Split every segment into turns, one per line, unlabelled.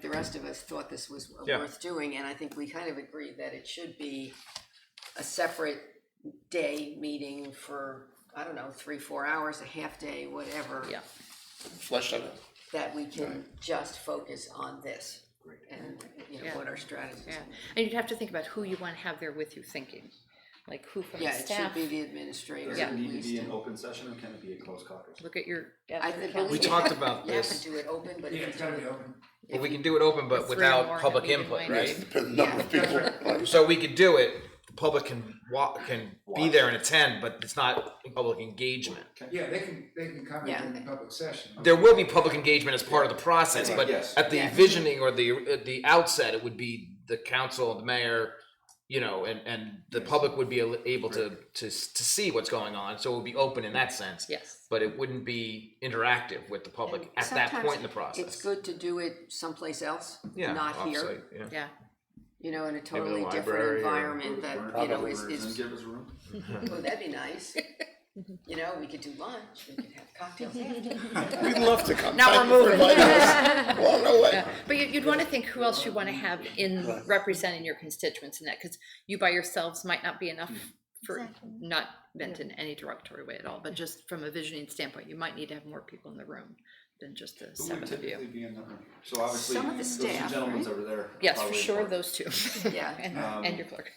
the rest of us thought this was
Yeah.
worth doing, and I think we kind of agreed that it should be a separate day meeting for, I don't know, three, four hours, a half day, whatever.
Yeah.
flesh that out.
That we can just focus on this and, you know,
Yeah.
what our strategies.
Yeah,
are.
and you'd have to think about who you want to have there with you thinking, like who from the
Yeah, it should
staff.
be the administrator
Does
at
it need to be
least.
an open session or can it be a closed caucus?
Look at your. at
I
your
think-
calendar.
We talked about
You have to
this,
do it open, but
Yeah,
if
it's
you
gotta
do
be
it
open.
but we can do it open, but
Three or more
without
at
public
meeting
input,
might
right?
be.
Depends on the number of people. Right.
So we could do it, the public can wa, can be there and attend, but it's not public engagement.
Yeah, they can, they can come
Yeah.
in the public session.
There will be public engagement as part of the process,
Right.
but
Yes.
at the
Yeah.
visioning or the, at the outset, it would be the council, the mayor, you know, and, and the public would be able to, to, to see what's going on, so it would be open in that sense.
Yes,
But it wouldn't be interactive with the public at that
sometimes
point in the process.
It's good to do it someplace else,
Yeah,
not here,
offsite, yeah.
yeah,
you know, in a totally different
library or-
environment that, you know, is,
Burn it up,
is
give us room.
Oh, that'd be nice. You know, we could do lunch, we could have cocktails after.
We'd love to come.
Now
Thank
we're
you for
moving.
inviting us. Well, no way.
but you, you'd want to think who else you want to have in representing your constituents in that, because you by yourselves might not be enough for, not meant in any derogatory way at all, but just from a visioning standpoint, you might need to have more people in the room than just the
Who would
seven of
typically
you.
be in that room? So obviously,
Some of the
those two
staff,
gentlemen
right?
over there.
Yes, for
probably
sure,
important.
those two.
Yeah.
And,
Um,
and your clerk.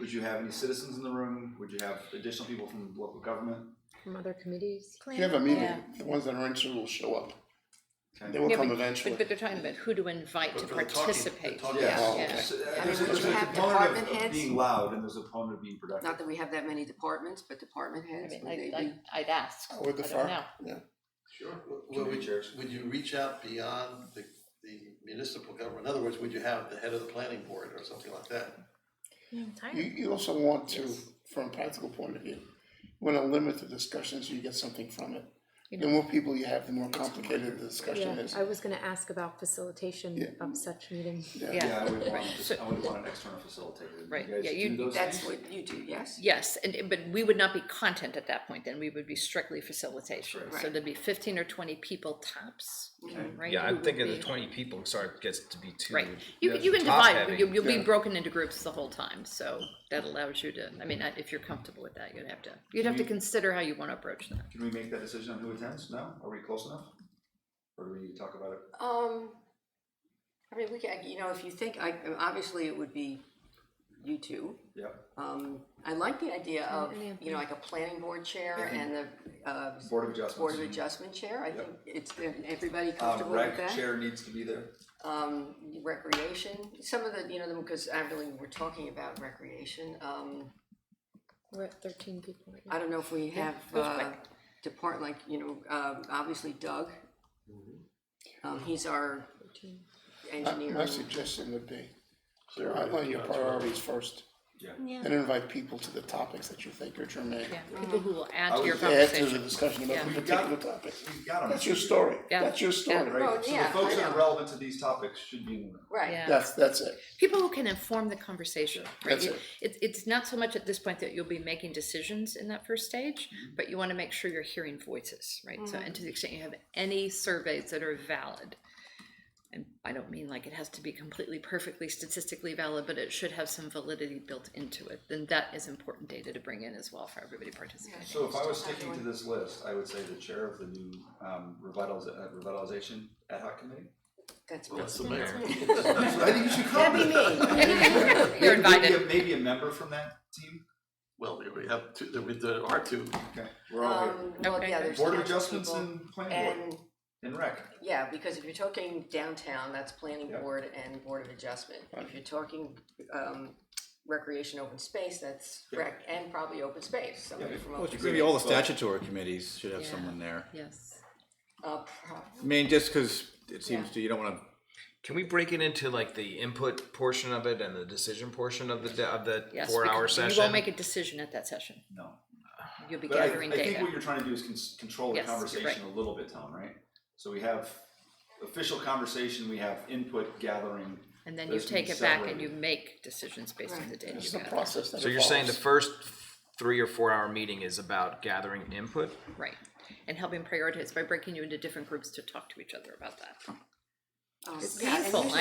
Would you have any citizens in the room? Would you have additional people from local government?
From other committees.
If you have a meeting, the ones that are interested will show up. They will
Yeah,
come
but-
eventually.
But, but they're talking about who to invite to participate.
Yeah.
Oh,
Yeah.
okay.
So, uh,
I mean,
There's a
would you
there's a
have
component
department
of- of
heads?
being loud and there's a component of being productive.
Not that we have that many departments, but department
I
heads,
mean,
would
I,
they
I,
be?
I'd ask, I
With the
don't
fire-
know.
yeah.
Sure.
Would
Committee
we-
chairs.
Would you reach out beyond the, the municipal government? In other words, would you have the head of the planning board or something like that?
You, you also want to, from a practical point of view, want to limit the discussion so you get something from it. The more people you have, the more complicated the discussion
Yeah,
is.
I was gonna ask about facilitation
Yeah.
of such meetings.
Yeah,
Yeah,
I would want,
So-
I would want an external facilitator. You
Right,
guys
yeah,
do
you-
those
That's
things?
what you do, yes?
yes, and, but we would not be content at that point, then we would be strictly facilitation.
Right.
So there'd be fifteen or twenty people tops,
Okay.
right?
Yeah,
who
I'm
would
thinking the
be-
twenty people, sorry, gets to be too.
Right, you,
yeah,
you can
top
divide,
heavy.
you, you'll be
Yeah.
broken into groups the whole time, so that allows you to, I mean, I- if you're comfortable with that, you'd have to, you'd have to consider how you wanna approach that.
Can we make that decision on who attends? No? Are we close enough? Or do we need to talk about it?
Um, I mean, we can, you know, if you think, I, obviously it would be you two.
Yep.
Um, I like the idea of,
and the-
you know, like a planning board chair and the, uh,
Board of
board of
Adjustments.
adjustment chair, I
Yep.
think it's, everybody
Um,
comfortable with that?
rec chair needs to be there.
um, recreation, some of the, you know, because I really, we're talking about recreation, um,
We're at thirteen people right now.
I don't know if we have,
goes
uh,
quick.
depart, like, you know, um, obviously Doug. Um, he's our
My-
engineer.
My suggestion would be, to outline your priorities first,
Yeah.
and invite people to the topics that you think are germane.
Yeah, people who will add
I
to your
would
Add to the
conversation.
discussion about
Yeah.
the
We've got-
particular topic.
We've got them.
That's your story,
Yeah.
that's your story.
Right, so the
yeah,
folks
I
that
know.
are relevant to these topics should be in the room.
Right.
Yeah.
That's, that's it.
people who can inform the conversation. right?
That's
You-
it.
It's, it's not so much at this point that you'll be making decisions in that first stage,
Mm-hmm.
but you want to make sure you're hearing voices, right? So, and to the extent you have any surveys that are valid, and I don't mean like it has to be completely perfectly statistically valid, but it should have some validity built into it, then that is important data to bring in as well for everybody participating.
So if I was sticking to this list, I would say the chair of the new um, revitaliz- uh, revitalization ad hoc committee.
That's me.
the mayor.
I think you should come.
That'd be me.
You're
Maybe a-
invited.
Maybe a member from that team.
Well, we have two, there, there are two.
Okay, we're all
Um, well,
Okay.
yeah,
here.
there's
Board of
council
Adjustments
people.
and Planning Board
And,
and Rec.
Oh,
yeah, because if you're talking downtown, that's planning
Yeah.
board and board of adjustment. If you're talking, um, recreation, open space, that's
Yeah.
rec, and probably open space, somebody from
Well,
open space.
maybe all the statutory committees should have
Yeah.
someone there.
Yes.
Uh, prob-
I mean, just because it seems
Yeah.
to, you don't want
Can we break it into like the input portion of it and the decision portion of the de- of the
Yes,
four hour
because
session?
You won't make a decision at that session.
No.
You'll be
But I,
gathering
I think
data.
what you're trying to do is cons- control the
Yes, you're
conversation a little bit, Tom, right? So we have official conversation, we have input gathering.
And then you
those can be
take it back and
separated.
you make decisions based on the data you
It's the
gather.
process that evolves.
So you're saying the first three or four hour meeting is about gathering input?
Right, and helping prioritize by breaking you into different groups to talk to each other about that.
Oh,
It's
yeah, and
painful,
usually